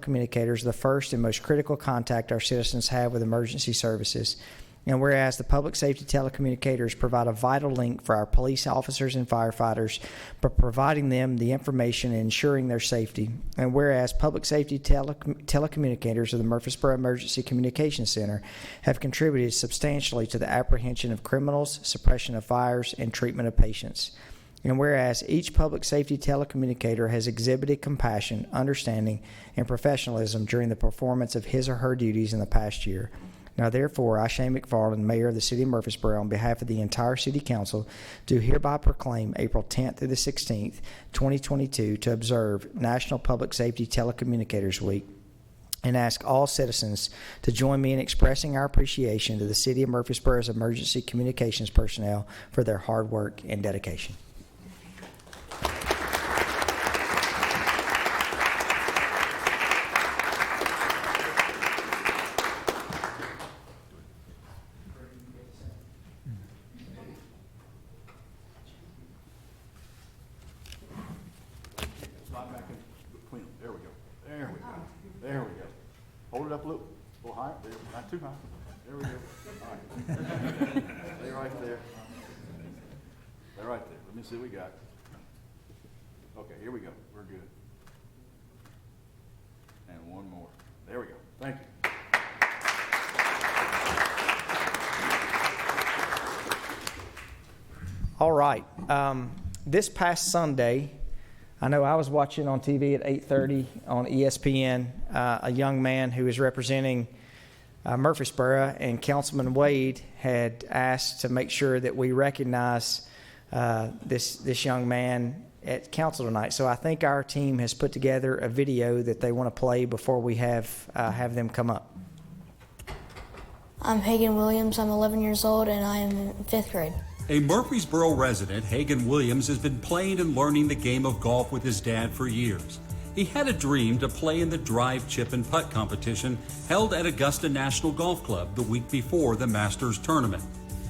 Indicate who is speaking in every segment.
Speaker 1: telecommunicators the first and most critical contact our citizens have with emergency services. And whereas the public safety telecommunicators provide a vital link for our police officers and firefighters by providing them the information and ensuring their safety. And whereas public safety tele- telecommunicators of the Murfreesboro Emergency Communication Center have contributed substantially to the apprehension of criminals, suppression of fires, and treatment of patients. And whereas each public safety telecommunicator has exhibited compassion, understanding, and professionalism during the performance of his or her duties in the past year. Now therefore, I, Shane McFarland, Mayor of the City of Murfreesboro, on behalf of the entire City Council, do hereby proclaim April 10th through the 16th, 2022, to observe National Public Safety Telecommunicators Week and ask all citizens to join me in expressing our appreciation to the City of Murfreesboro's emergency communications personnel for their hard work and dedication.
Speaker 2: Slide back in between them. There we go. There we go. There we go. Hold it up a little, a little higher. There, Not too high. There we go. All right. Stay right there. Stay right there. Let me see what we got. Okay, here we go. We're good. And one more. There we go. Thank you.
Speaker 1: All right. Um, this past Sunday, I know I was watching on TV at 8:30 on E ESPN uh, a young man who is representing uh, Murfreesboro, and Councilman Wade had asked to make sure that we recognize uh, this this young man at council tonight. So I think our team has put together a video that they want to play before we have uh, have them come up.
Speaker 3: I'm Hagan Williams. I'm 11 years old and I am in fifth grade.
Speaker 4: A Murfreesboro resident, Hagan Williams, has been playing and learning the game of golf with his dad for years. He had a dream to play in the drive, chip, and putt competition held at Augusta National Golf Club the week before the Masters tournament.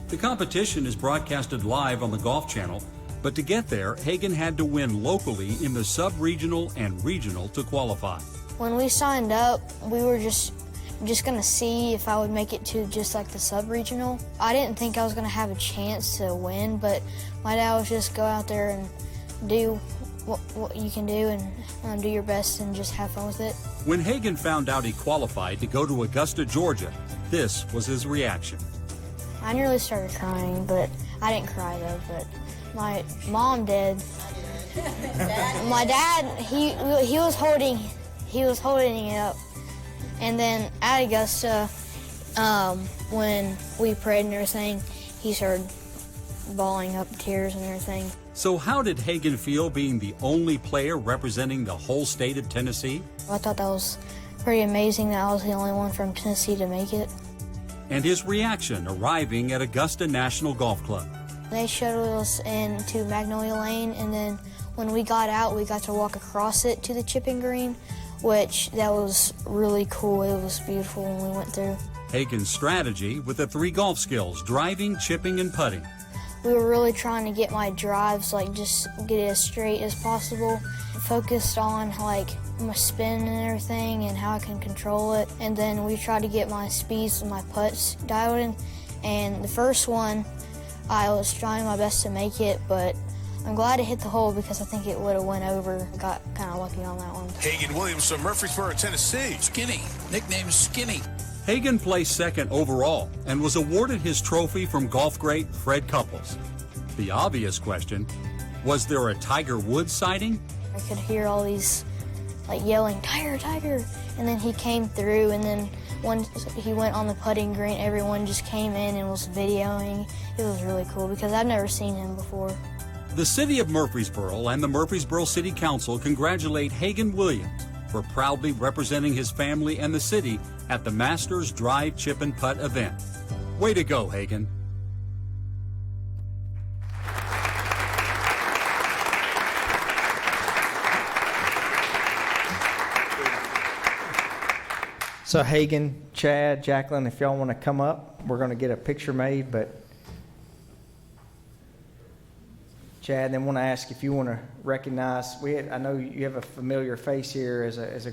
Speaker 4: The competition is broadcasted live on the Golf Channel, but to get there, Hagan had to win locally in the sub regional and regional to qualify.
Speaker 3: When we signed up, we were just just gonna see if I would make it to just like the sub regional. I didn't think I was gonna have a chance to win, but my dad was just go out there and do what, what you can do and um, do your best and just have fun with it.
Speaker 4: When Hagan found out he qualified to go to Augusta, Georgia, this was his reaction.
Speaker 3: I nearly started crying, but I didn't cry though. But my mom did. my dad, he he was holding, he was holding it up, and then at Augusta, um, when we prayed and everything, he started bawling up tears and everything.
Speaker 4: So, how did Hagan feel being the only player representing the whole state of Tennessee?
Speaker 3: I thought that was pretty amazing that I was the only one from Tennessee to make it.
Speaker 4: And his reaction arriving at Augusta National Golf Club.
Speaker 3: They shuttled us into Magnolia Lane, and then when we got out, we got to walk across it to the chipping green, which that was really cool. It was beautiful when we went through.
Speaker 4: Hagan's strategy with the three golf skills driving, chipping, and putting.
Speaker 3: We were really trying to get my drives, like just get it as straight as possible. Focused on like my spin and everything and how I can control it. And then we tried to get my speeds and my putts dialed in. And the first one, I was trying my best to make it, but I'm glad it hit the hole because I think it would have went over. Got kind of lucky on that one.
Speaker 5: Hagan Williams from Murfreesboro, Tennessee. Skinny, nicknamed Skinny.
Speaker 4: Hagan placed second overall and was awarded his trophy from golf great Fred Couples. The obvious question was there a Tiger Woods sighting?
Speaker 3: I could hear all these like yelling, Tiger, Tiger. And then he came through, and then once he went on the putting green, everyone just came in and was videoing. It was really cool because I've never seen him before.
Speaker 4: The City of Murfreesboro and the Murfreesboro City Council congratulate Hagan Williams for proudly representing his family and the city at the Masters Drive Chip and Putt event. Way to go, Hagan.
Speaker 1: So Hagan, Chad, Jacqueline, if y'all want to come up, we're going to get a picture made, but Chad, then want to ask if you want to recognize, we had, I know you have a familiar face here as a, as a